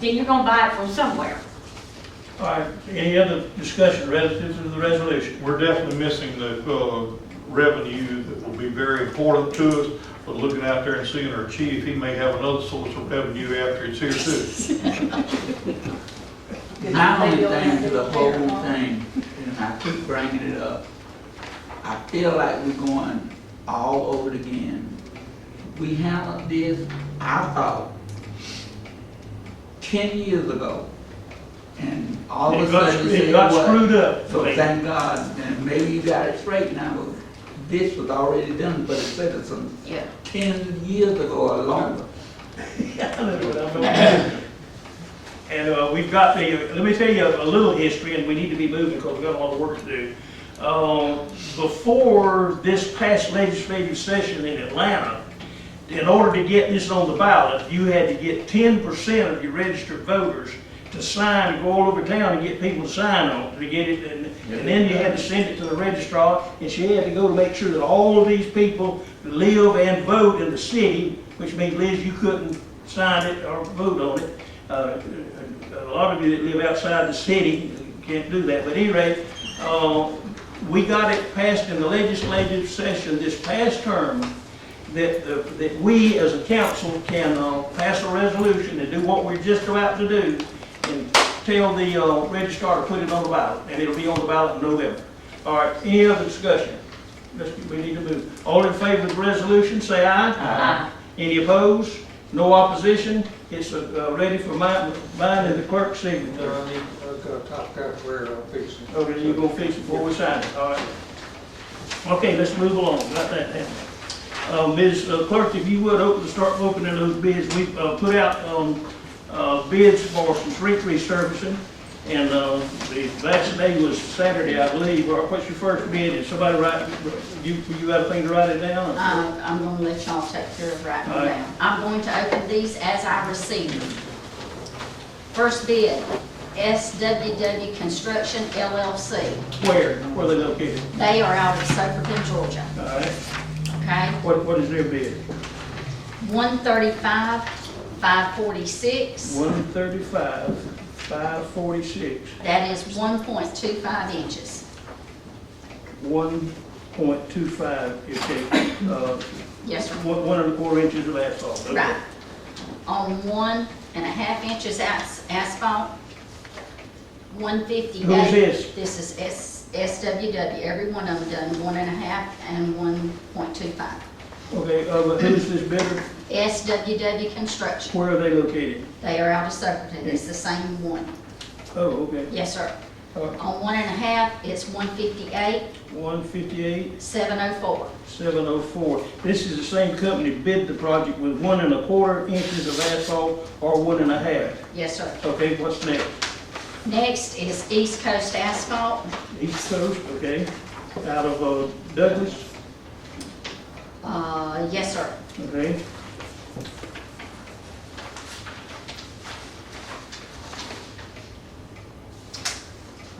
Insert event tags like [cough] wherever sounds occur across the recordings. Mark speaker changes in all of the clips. Speaker 1: then you're gonna buy it from somewhere.
Speaker 2: All right, any other discussion relative to the resolution?
Speaker 3: We're definitely missing the uh, revenue that will be very important to us, but looking out there and seeing our chief, he may have another source of revenue after it's here
Speaker 2: [laughs]
Speaker 3: too.
Speaker 4: My only thing to the whole thing, and I keep bringing it up, I feel like we're going all over it again. We handled this, I thought, ten years ago, and all of
Speaker 2: It
Speaker 4: a
Speaker 2: got
Speaker 4: sudden
Speaker 2: screwed-
Speaker 4: you
Speaker 2: It
Speaker 4: said
Speaker 2: got
Speaker 4: what?
Speaker 2: screwed up.
Speaker 4: So thank God, and maybe you got it straight now, but this was already done for the citizens
Speaker 1: Yeah.
Speaker 4: ten years ago or longer.
Speaker 2: And uh, we've got the, let me tell you a little history, and we need to be moving because we've got a lot of work to do. Uh, Before this past legislative session in Atlanta, in order to get this on the ballot, you had to get ten percent of your registered voters to sign, go all over town and get people to sign on it, to get it, and, and then you had to send it to the registrar, and she had to go to make sure that all of these people live and vote in the city, which means Liz, you couldn't sign it or vote on it. Uh, a lot of you that live outside the city can't do that, but at any rate, uh, we got it passed in the legislative session this past term, that, uh, that we as a council can uh, pass a resolution and do what we're just about to do and tell the uh, registrar to put it on the ballot, and it'll be on the ballot in November. All right, any other discussion? Let's- We need to move. All in favor of the resolution, say aye.
Speaker 1: Uh,
Speaker 2: Any opposed? No opposition? It's uh, uh, ready for mine, mine and the clerk's signature.
Speaker 5: I've got a top hat where I'm fixing.
Speaker 2: Oh, then you go fix it before we sign it, all right? Okay, let's move along, got that down. Uh, Ms. Clerk, if you would, open, start opening those bids, we, uh, put out, um, uh, bids for some street resurfacing, and, uh, the last day was Saturday, I believe, or what's your first bid, did somebody write, you, you got a thing to write it down?
Speaker 6: Uh, I'm gonna let y'all take care of writing
Speaker 2: All
Speaker 6: them
Speaker 2: right.
Speaker 6: down. I'm going to open these as I receive them. First bid, SWW Construction LLC.
Speaker 2: Where, where they located,
Speaker 6: They are out of Soperton, Georgia,
Speaker 2: all right?
Speaker 6: okay?
Speaker 2: What, what is their bid?
Speaker 6: One thirty-five, five forty-six,
Speaker 2: One thirty-five, five forty-six.
Speaker 6: that is one point two five inches.
Speaker 2: one point two five, you take, uh,
Speaker 6: Yes, sir.
Speaker 2: one, one and a quarter inches of asphalt. okay.
Speaker 6: Right. On one and a half inches as- asphalt, one fifty.
Speaker 2: Who's this?
Speaker 6: This is S, SWW, every one of them done, one and a half and one point two five.
Speaker 2: Okay, uh, but who's this bidder?
Speaker 6: SWW Construction,
Speaker 2: Where are they located?
Speaker 6: they are out of Soperton, it's the same one.
Speaker 2: Oh, okay.
Speaker 6: Yes, sir.
Speaker 2: Uh,
Speaker 6: On one and a half, it's one fifty-eight,
Speaker 2: one fifty-eight,
Speaker 6: seven oh four.
Speaker 2: seven oh four. This is the same company bid the project with one and a quarter inches of asphalt or one and a half.
Speaker 6: Yes, sir.
Speaker 2: Okay, what's next?
Speaker 6: Next is East Coast Asphalt,
Speaker 2: East Coast, okay, out of uh, Douglas,
Speaker 6: uh, yes, sir.
Speaker 2: okay?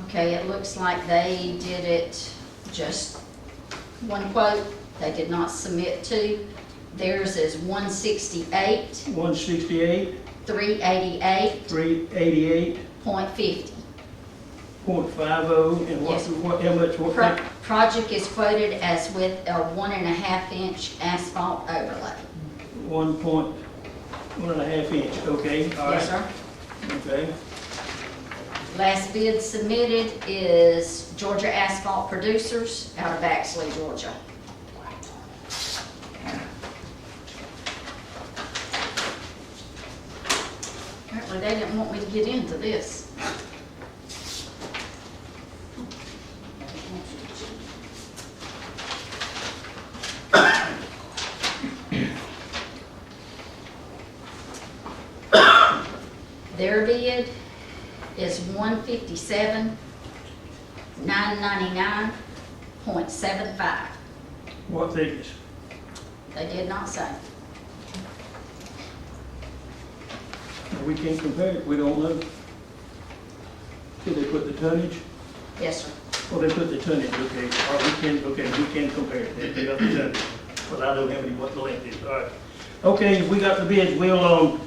Speaker 6: Okay, it looks like they did it just one quote, they did not submit two. Theirs is one sixty-eight,
Speaker 2: One sixty-eight,
Speaker 6: three eighty-eight
Speaker 2: three eighty-eight
Speaker 6: point fifty.
Speaker 2: point five oh, and what,
Speaker 6: Yes.
Speaker 2: what, how much, what?
Speaker 6: Pro- project is quoted as with a one and a half inch asphalt overlay.
Speaker 2: One point, one and a half inch, okay, all right.
Speaker 6: Yes, sir.
Speaker 2: Okay,
Speaker 6: Last bid submitted is Georgia Asphalt Producers out of Baxley, Georgia. Apparently, they didn't want me to get into this. Their bid is one fifty-seven, nine ninety-nine point seven five.
Speaker 2: what thickness?
Speaker 6: They did not say.
Speaker 2: We can't compare it, we don't know. Did they put the tonnage?
Speaker 6: Yes, sir.
Speaker 2: Well, they put the tonnage, okay, or we can, okay, we can compare it, they got the tonnage, but I don't have any, what the length is, all right. Okay, we got the bids, we'll, um,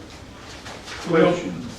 Speaker 2: we'll,
Speaker 3: Question,